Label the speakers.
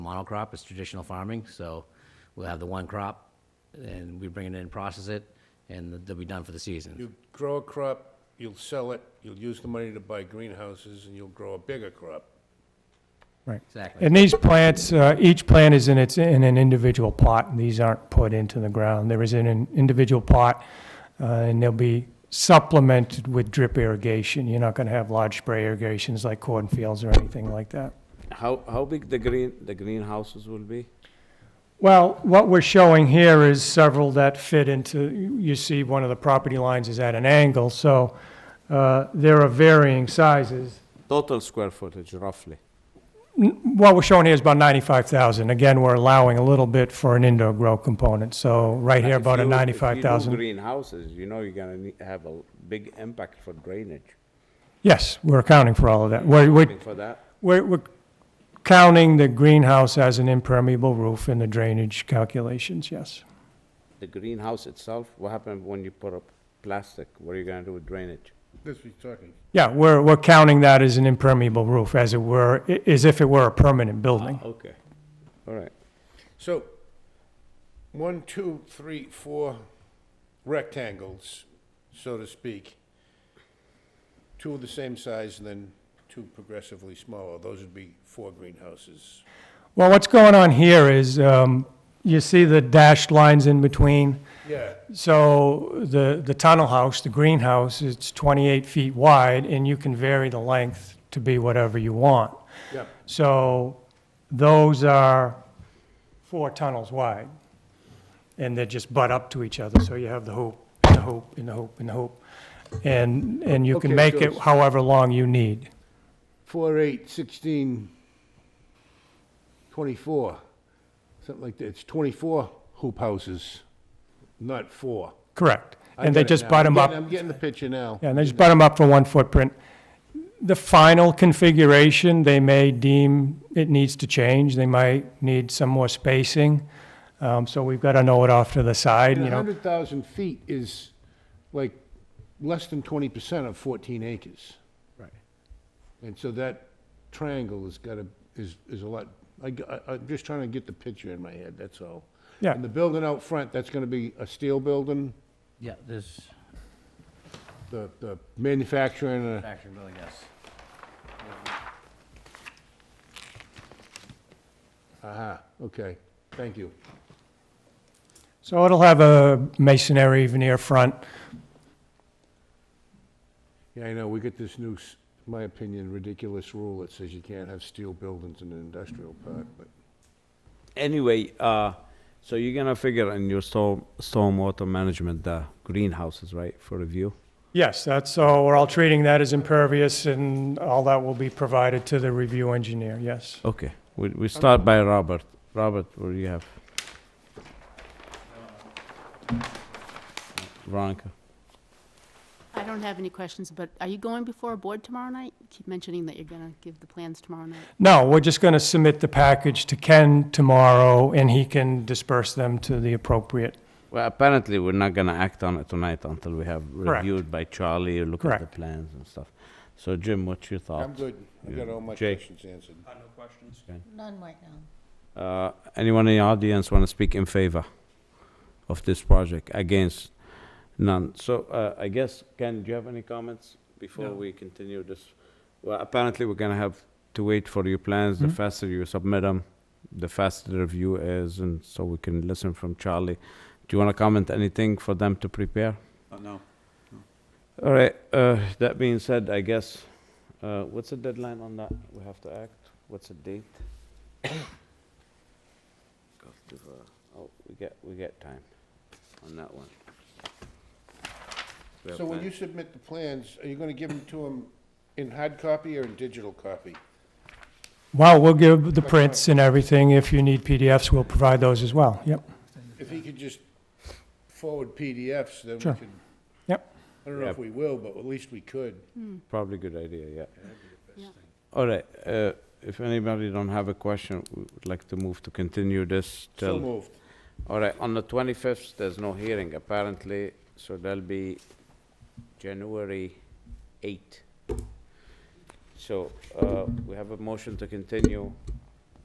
Speaker 1: monocrop, it's traditional farming, so we'll have the one crop, and we bring it in, process it, and they'll be done for the season.
Speaker 2: You grow a crop, you'll sell it, you'll use the money to buy greenhouses, and you'll grow a bigger crop.
Speaker 3: Right.
Speaker 1: Exactly.
Speaker 3: And these plants, uh, each plant is in its, in an individual plot, and these aren't put into the ground. There is an individual plot, uh, and they'll be supplemented with drip irrigation. You're not going to have large spray irrigations like cornfields or anything like that.
Speaker 4: How, how big the green, the greenhouses will be?
Speaker 3: Well, what we're showing here is several that fit into, you- you see one of the property lines is at an angle, so uh, there are varying sizes.
Speaker 4: Total square footage roughly?
Speaker 3: N- What we're showing here is about 95,000. Again, we're allowing a little bit for an indoor grow component, so right here,
Speaker 4: If
Speaker 3: about a
Speaker 4: you- if you do
Speaker 3: 95,000.
Speaker 4: greenhouses, you know you're gonna need, have a big impact for drainage.
Speaker 3: Yes, we're accounting for all of that. We're, we're-
Speaker 4: For that,
Speaker 3: we're, we're counting the greenhouse as an impermeable roof in the drainage calculations, yes.
Speaker 4: the greenhouse itself, what happened when you put up plastic? What are you gonna do with drainage?
Speaker 2: This is talking.
Speaker 3: Yeah, we're, we're counting that as an impermeable roof, as it were, i- as if it were a permanent building.
Speaker 4: Okay. All right.
Speaker 2: So, one, two, three, four rectangles, so to speak. Two of the same size and then two progressively smaller. Those would be four greenhouses.
Speaker 3: Well, what's going on here is, um, you see the dashed lines in between?
Speaker 2: Yeah.
Speaker 3: So the, the tunnel house, the greenhouse, it's 28 feet wide, and you can vary the length to be whatever you want.
Speaker 2: Yeah.
Speaker 3: So those are four tunnels wide, and they just butt up to each other, so you have the hoop, and the hoop, and the hoop, and the hoop. And, and you can
Speaker 2: Okay,
Speaker 3: make
Speaker 2: so
Speaker 3: it
Speaker 2: it's-
Speaker 3: however long you need.
Speaker 2: Four, eight, sixteen, twenty-four, something like that. It's twenty-four hoop houses, not four.
Speaker 3: Correct.
Speaker 2: I
Speaker 3: And they
Speaker 2: get it
Speaker 3: just
Speaker 2: now.
Speaker 3: butt them
Speaker 2: I'm
Speaker 3: up.
Speaker 2: getting- I'm getting the picture now.
Speaker 3: Yeah, and they just butt them up for one footprint. The final configuration, they may deem it needs to change, they might need some more spacing. Um, so we've got to know it off to the side,
Speaker 2: And
Speaker 3: you know.
Speaker 2: 100,000 feet is like less than 20% of 14 acres.
Speaker 3: Right.
Speaker 2: And so that triangle has got to, is, is a lot, I, g- I- I'm just trying to get the picture in my head, that's all.
Speaker 3: Yeah.
Speaker 2: And the building out front, that's going to be a steel building,
Speaker 1: Yeah, there's
Speaker 2: the, the manufacturing, uh,
Speaker 1: actually really yes.
Speaker 2: aha, okay, thank you.
Speaker 3: So it'll have a masonry veneer front.
Speaker 2: Yeah, I know, we get this new, s- in my opinion, ridiculous rule that says you can't have steel buildings in an industrial park, but
Speaker 4: Anyway, uh, so you're gonna figure in your storm, stormwater management, the greenhouses, right, for review?
Speaker 3: Yes, that's, so we're all treating that as impervious and all that will be provided to the review engineer, yes.
Speaker 4: Okay, we, we start by Robert. Robert, what do you have? Veronica?
Speaker 5: I don't have any questions, but are you going before a board tomorrow night? You Keep mentioning that you're gonna give the plans tomorrow night.
Speaker 3: No, we're just going to submit the package to Ken tomorrow and he can disperse them to the appropriate
Speaker 4: Well, apparently, we're not gonna act on it tonight until we have
Speaker 3: Correct.
Speaker 4: reviewed by Charlie, look at the
Speaker 3: Correct.
Speaker 4: plans and stuff. So Jim, what's your thoughts?
Speaker 2: I'm good, I got all my
Speaker 4: Jake?
Speaker 2: questions answered.
Speaker 6: None right now.
Speaker 4: Uh, Anyone in the audience want to speak in favor of this project? Against? None. So uh, I guess, Ken, do you have any comments before we continue this? Well, apparently, we're going to have to wait for your plans.
Speaker 2: Mm-hmm.
Speaker 4: The faster you submit them, the faster the review is, and so we can listen from Charlie. Do you want to comment anything for them to prepare? No. All right, uh, that being said, I guess, uh, what's the deadline on that? We have to act? What's the date? Go to the- Oh, we got, we got time on that one. We have
Speaker 2: So when
Speaker 4: time.
Speaker 2: you submit the plans, are you gonna give them to them in hard copy or in digital copy?
Speaker 3: Well, we'll give the prints and everything. If you need PDFs, we'll provide those as well. Yep.
Speaker 2: If he could just forward PDFs, then we
Speaker 3: Sure.
Speaker 2: could.
Speaker 3: Yep.
Speaker 2: I don't know if we will, but at least we could.
Speaker 4: Probably good idea, yeah.
Speaker 5: Yeah.
Speaker 4: All right, uh, if anybody don't have a question, we would like to move to continue this
Speaker 2: So
Speaker 4: till...
Speaker 2: moved.
Speaker 4: All right, on the 25th, there's no hearing apparently, so that'll be January 8. So uh, we have a motion to continue